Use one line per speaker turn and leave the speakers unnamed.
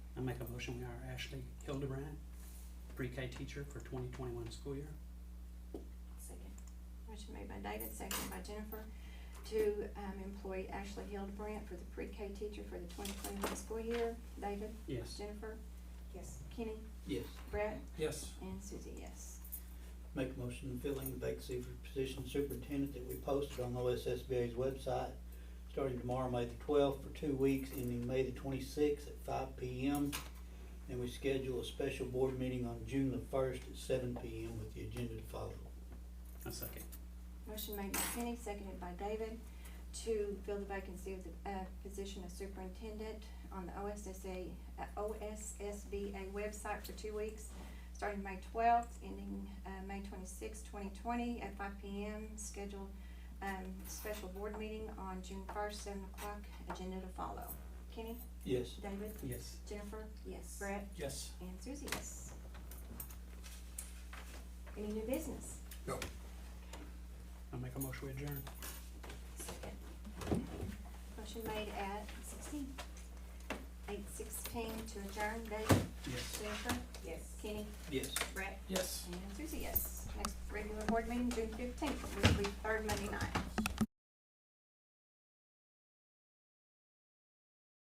I make a motion, we hire Ashley Hildebrand, pre-K teacher for twenty twenty-one school year.
Second. Motion made by David, seconded by Jennifer, to, um, employ Ashley Hildebrandt for the pre-K teacher for the twenty twenty-one school year. David,
Yes.
Jennifer,
Yes.
Kenny,
Yes.
Brett,
Yes.
and Susie, yes.
Make a motion filling the vacancy for position superintendent that we posted on OSSBA's website, starting tomorrow, May the twelfth, for two weeks, ending May the twenty-sixth at five P M. And we schedule a special board meeting on June the first at seven P M with the agenda to follow.
I second.
Motion made by Kenny, seconded by David, to fill the vacancy of the, uh, position of superintendent on the OSSA, uh, OSSBA website for two weeks, starting May twelfth, ending, uh, May twenty-sixth, twenty twenty, at five P M. Scheduled, um, special board meeting on June first, seven o'clock, agenda to follow. Kenny,
Yes.
David,
Yes.
Jennifer,
Yes.
Brett,
Yes.
and Susie, yes. Any new business?
I make a motion, we adjourn.
Second.
Motion made at sixteen. Eight sixteen to adjourn, David,
Yes.
Jennifer,
Yes.
Kenny,
Yes.
Brett,
Yes.
and Susie, yes. Next regular board meeting, June fifteenth, which will be third Monday night.